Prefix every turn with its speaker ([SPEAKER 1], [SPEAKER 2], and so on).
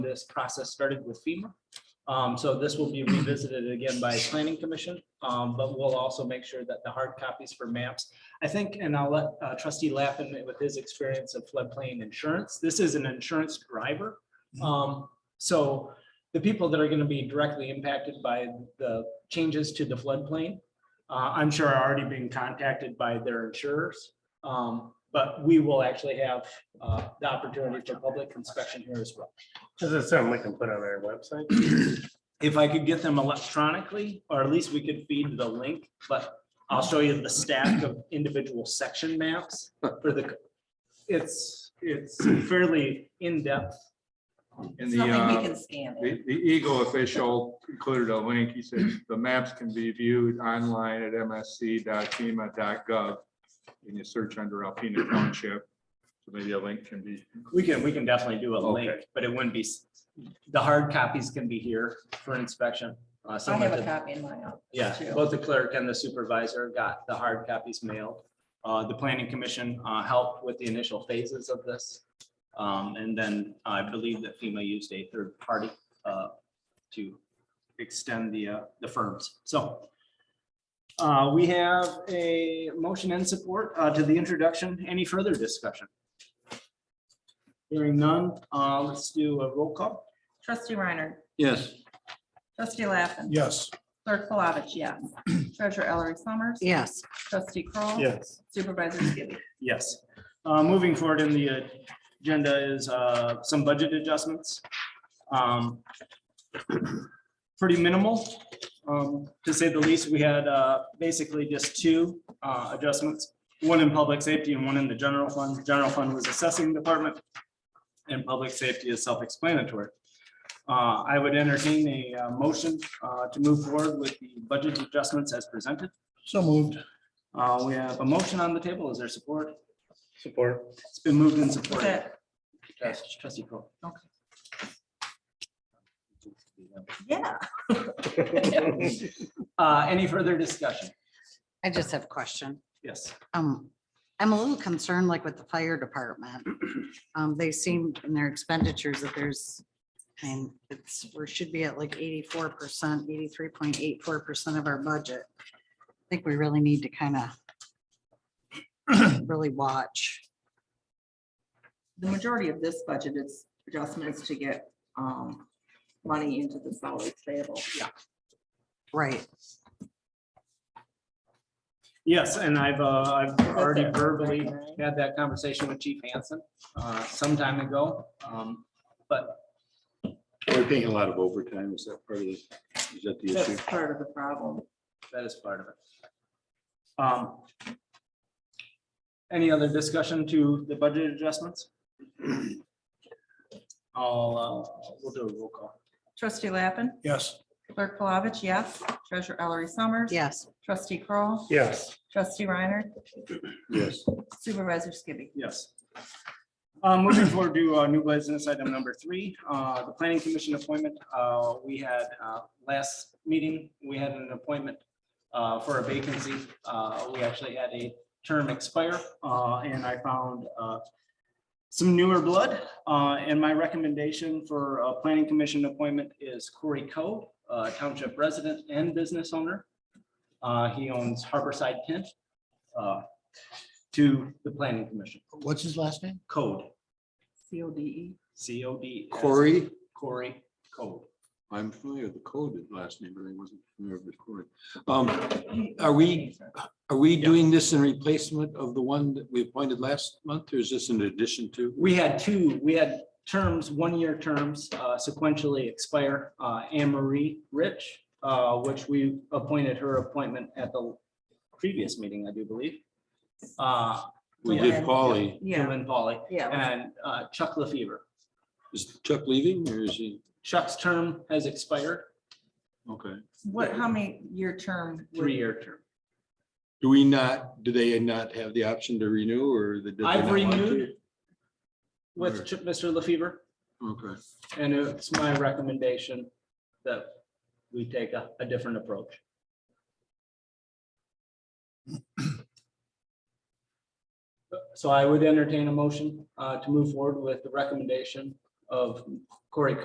[SPEAKER 1] this process started with FEMA. Um, so this will be revisited again by planning commission, um, but we'll also make sure that the hard copies for maps. I think, and I'll let uh, trustee Lappin with his experience of floodplain insurance, this is an insurance driver. Um, so the people that are gonna be directly impacted by the changes to the floodplain, uh, I'm sure are already being contacted by their insurers. Um, but we will actually have, uh, the opportunity for public inspection here as well.
[SPEAKER 2] Does that sound we can put on our website?
[SPEAKER 1] If I could get them electronically, or at least we could feed the link, but I'll show you the stack of individual section maps for the. It's, it's fairly in-depth.
[SPEAKER 3] And
[SPEAKER 4] It's
[SPEAKER 3] the,
[SPEAKER 4] not like we
[SPEAKER 3] uh,
[SPEAKER 4] can scan it.
[SPEAKER 3] the the Eagle official included a link. He said the maps can be viewed online at E msc.fema.gov. And you search under Alpena Township. So maybe a link can be,
[SPEAKER 1] We can, we can definitely do a link,
[SPEAKER 3] Okay.
[SPEAKER 1] but it wouldn't be, s- the hard copies can be here for inspection. Uh,
[SPEAKER 4] I
[SPEAKER 1] someone
[SPEAKER 4] have a
[SPEAKER 1] did-
[SPEAKER 4] copy in my office.
[SPEAKER 1] Yeah,
[SPEAKER 4] too.
[SPEAKER 1] both the clerk and the supervisor got the hard copies mailed. Uh, the planning commission, uh, helped with the initial phases of this. Um, and then I believe that FEMA used a third party, uh, to extend the, uh, the firms. So uh, we have a motion and support, uh, to the introduction. Any further discussion? Hearing none, uh, let's do a roll call.
[SPEAKER 4] Trustee Reiner.
[SPEAKER 5] Yes.
[SPEAKER 4] Trustee Lappin.
[SPEAKER 2] Yes.
[SPEAKER 4] Clerk Palovich, yes. Treasurer Ellery Summers.
[SPEAKER 6] Yes,
[SPEAKER 4] Trustee Kroll,
[SPEAKER 2] Yes.
[SPEAKER 4] Supervisor Skibby.
[SPEAKER 1] Yes. Uh, Moving forward in the uh, agenda is uh, some budget adjustments. Um, Pretty minimal, um, to say the least. We had uh, basically just two uh, adjustments, one in public safety and one in the general fund. General fund was assessing department and public safety is self-explanatory. Uh, I would entertain a uh, motion uh, to move forward with the budget adjustments as presented.
[SPEAKER 5] So moved.
[SPEAKER 1] Uh, We have a motion on the table. Is there support?
[SPEAKER 2] Support.
[SPEAKER 1] It's been moved and
[SPEAKER 4] That's
[SPEAKER 1] supported.
[SPEAKER 4] it.
[SPEAKER 1] Yes, Trustee Cole.
[SPEAKER 4] Yeah.
[SPEAKER 1] Uh, any further discussion?
[SPEAKER 6] I just have a question.
[SPEAKER 1] Yes.
[SPEAKER 6] Um, I'm a little concerned like with the fire department. Um, they seem in their expenditures that there's, I mean, it's, we should be at like eighty-four percent, eighty-three point eight four percent of our budget. I think we really need to kind of really watch.
[SPEAKER 4] The majority of this budget is adjustments to get um, money into the salary table. Yeah.
[SPEAKER 6] Right,
[SPEAKER 1] Yes, and I've, uh, I've already verbally had that conversation with Chief Hansen, uh, some time ago. Um, but
[SPEAKER 5] We're paying a lot of overtime. Is that part of the, is that the issue?
[SPEAKER 4] That's part of the problem.
[SPEAKER 1] that is part of it. Um. Any other discussion to the budget adjustments? I'll, uh, we'll do a roll call.
[SPEAKER 4] Trustee Lappin.
[SPEAKER 2] Yes.
[SPEAKER 4] Clerk Palovich, yes. Treasurer Ellery Summers.
[SPEAKER 6] yes.
[SPEAKER 4] Trustee Kroll,
[SPEAKER 2] Yes.
[SPEAKER 4] Trustee Reiner.
[SPEAKER 5] Yes.
[SPEAKER 4] Supervisor Skibby.
[SPEAKER 1] Yes. Uh, Moving forward to uh, new business item number three, uh, the planning commission appointment. Uh, We had uh, last meeting, we had an appointment uh, for a vacancy. Uh, We actually had a term expire uh, and I found uh, some newer blood. Uh, And my recommendation for a planning commission appointment is Corey Coe, uh, township resident and business owner. Uh, He owns Harborside Tent uh, to the planning commission
[SPEAKER 5] What's his last name?
[SPEAKER 1] code,
[SPEAKER 4] C O D E.
[SPEAKER 1] C O D. S,
[SPEAKER 5] Corey.
[SPEAKER 1] Corey, code.
[SPEAKER 5] I'm familiar with the code, his last name, but I wasn't familiar with Corey. Um, are we, are we doing this in replacement of the one that we appointed last month or is this in addition to?
[SPEAKER 1] We had two, we had terms, one-year terms uh, sequentially expire. Uh, Anne Marie Rich, uh, which we appointed her appointment at the previous meeting, I do believe. Uh,
[SPEAKER 5] We did
[SPEAKER 4] Yeah.
[SPEAKER 5] Polly.
[SPEAKER 4] Yeah,
[SPEAKER 1] Dylan Polly
[SPEAKER 4] yeah.
[SPEAKER 1] and uh, Chuck LaFever.
[SPEAKER 5] Is Chuck leaving or is he?
[SPEAKER 1] Chuck's term has expired,
[SPEAKER 5] Okay.
[SPEAKER 4] What, how many year term? would-
[SPEAKER 1] three-year term.
[SPEAKER 5] Do we not, do they not have the option to renew or? they- did they
[SPEAKER 1] I've
[SPEAKER 5] not want to?
[SPEAKER 1] renewed with Ch- Mr. LaFever.
[SPEAKER 5] Okay.
[SPEAKER 1] And it's my recommendation that we take a, a different approach. So I would entertain a motion uh, to move forward with the recommendation of Corey